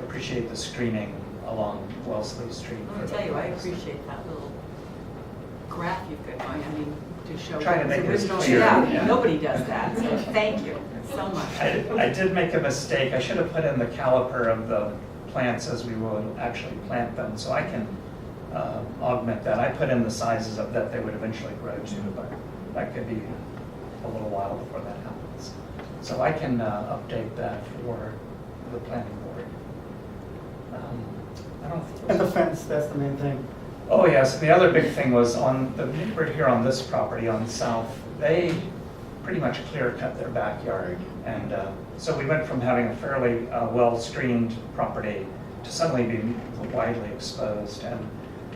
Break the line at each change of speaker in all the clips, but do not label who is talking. appreciate the screening along Wellesley Street.
Let me tell you, I appreciate that little graph you've got going, I mean, to show.
Trying to
what's
make it as
original.
clear, yeah.
Yeah, nobody does that, so thank you so much.
I, I did make a mistake, I should have put in the caliper of the plants as we will actually plant them, so I can uh, augment that. I put in the sizes of that they would eventually grow to, but that could be a little while before that happens. So I can uh, update that for the planning board. Um, I don't think.
And the fence, that's the main thing.
Oh, yes, the other big thing was on the neighbor here on this property on South, they pretty much clear cut their backyard. And uh, so we went from having a fairly uh, well-screened property to suddenly being widely exposed. And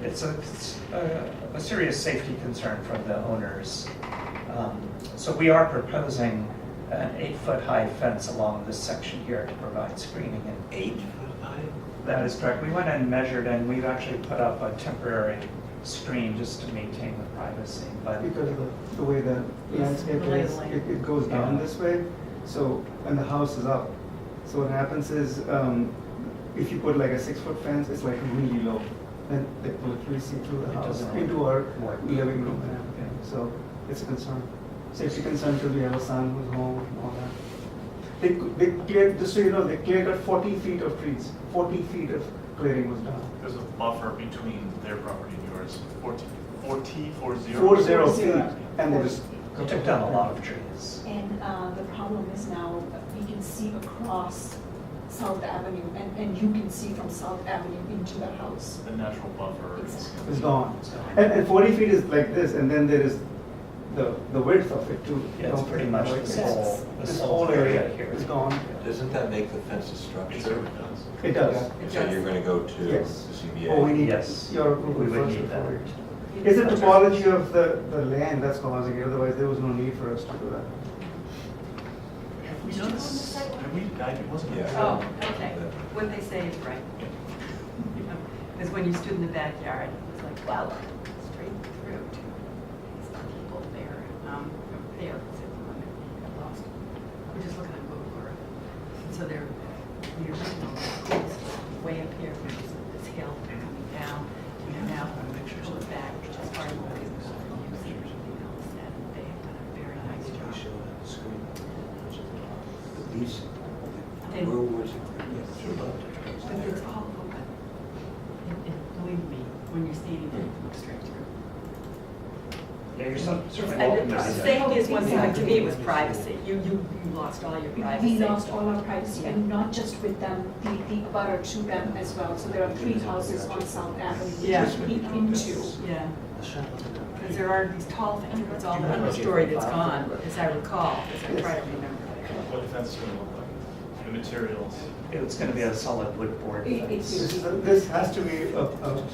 it's a, it's a a serious safety concern for the owners. Um, So we are proposing an eight-foot-high fence along this section here to provide screening and
Eight foot high?
that is correct. We went and measured, and we've actually put up a temporary screen just to maintain the privacy, but
Because of the- the way the landscape is, it it goes down this way, so, and the house is up. So what happens is, um, if you put like a six-foot fence, it's like really low. Then they will really see through the
It
house
doesn't
into our
work.
living room and everything. So it's a concern. Safety concern till we have a son who's home and all that. They, c- they cleared, just so you know, they cleared out forty feet of trees, forty feet of clearing was done.
There's a buffer between their property and yours, 40, 40, 40.
Four zero feet, and they just.
we took down a lot of trees.
And uh, the problem is now, we can see across South Avenue, and, and you can see from South Avenue into the house.
The natural buffer is.
It's gone. And, and forty feet is like this, and then there is the, the width of it too.
Yeah, It's pretty much this whole,
This
this whole area here.
is gone.
Doesn't that make the fence a structure?
It does.
So you're gonna go to the
Yes.
ZBA?
Oh, we need
Yes.
your
We
approval
would
first
need that.
before it. It's the topology of the, the land that's causing it, otherwise there was no need for us to do that.
Have we done this? Have we, I it wasn't.
Yeah.
Oh, okay, what they say is right. Because when you stood in the backyard, it was like, wow, straight through to these people there, um, there, except for one that got lost. We're just looking at Google Earth. And So they're, the original schools way up here, which is this hill coming down, and now pulled back, which is part of what we were using, you know, instead. They have done a very nice job. They-
Where was it? Yes.
But it's all open. And- and Believe me, when you're standing there, you look straight through.
Oh, Yeah, you're cer- certainly
And
welcome
the
to see that.
safety is one thing, but to me it was privacy. You, you, you lost all your
We-
privacy.
We lost all our privacy, and not just with them, the, the abutter to them as well. So there are three houses on South Avenue. we
Yeah.
can Peek into.
Yeah, because there are these tall things, it's all the story that's gone, as I recall, as I try to remember.
What the fence is gonna look like, the materials.
It's gonna be a solid wood board
It-
fence.
This is, a- this has to be a, a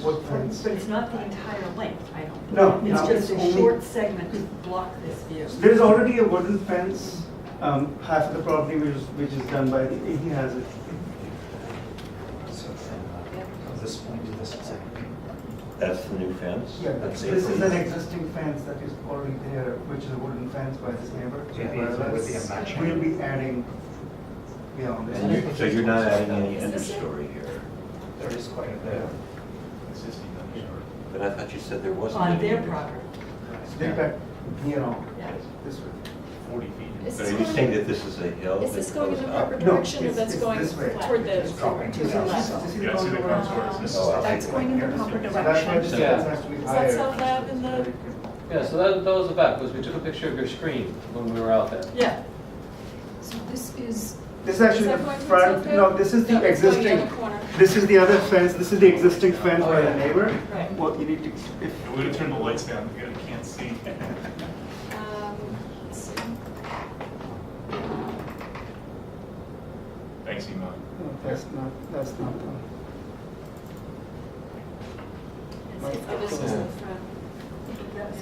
wood fence.
But it's not the entire length, I don't.
No,
It's
no,
just a
it's only-
short segment to block this view.
There's already a wooden fence, um, half of the property which is, which is done by, the- he has it.
So from uh, from this point to this point.
That's the new fence?
Yeah,
That's
this
eight
is
feet?
an existing fence that is already there, which is a wooden fence by this neighbor.
Yeah, it would be a matching.
We'll be adding beyond
And
this.
you- So you're not adding any understory here?
There is quite a bit.
Existing understory.
But I thought you said there wasn't.
On
any
their
under-
property,
They back, you know,
yeah.
this way.
40 feet.
Is
So
this
are you
going-
saying that this uh, is a hill?
Is this
that
going in
goes
the
up?
proper
No,
direction, or
it's-
that's
it's
going
this way.
toward the,
It's dropping
to the
down.
left?
Yeah, see the contours, this is.
Oh, I
That's going in the proper
So that's why this
direction.
Yeah.
fence has to be
Is that
higher.
South Ave in the-
Yeah, so that, that was the back, was we took a picture of your screen when we were out there.
Yeah,
So this is.
This is actually
Is that
the
going to
front,
South Ave?
no, this is
No,
the
it's going the
existing,
other corner.
this is the other fence, this is the existing fence
Oh,
by the
yeah.
neighbor.
Right.
What you need to, if,
We're gonna turn the lights down, you can't see.
Um, let's see.
Thanks, Emon.
no, that's not, that's not the,
It's- This is the front.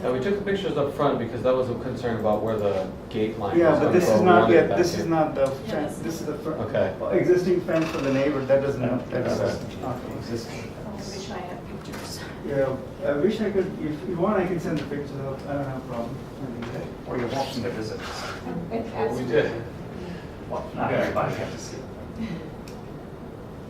Yeah, we took the pictures up front because that was a concern about where the gate line was.
yeah, but
gonna
this
go.
is
We
not
wanted it
yet,
back
this is
here.
not the
Yeah,
fence,
that's-
this is the front.
Okay.
Existing fence for the neighbor, that doesn't, that's
Okay.
not.
uh, Existing.
Oh,
I wish I had pictures.
Yeah, I wish I could, if you want, I can send the pictures out, I don't have a problem.
Or you're welcome to visit.
And- and
Well,
as-
We did.
Well, not everybody has to see. it.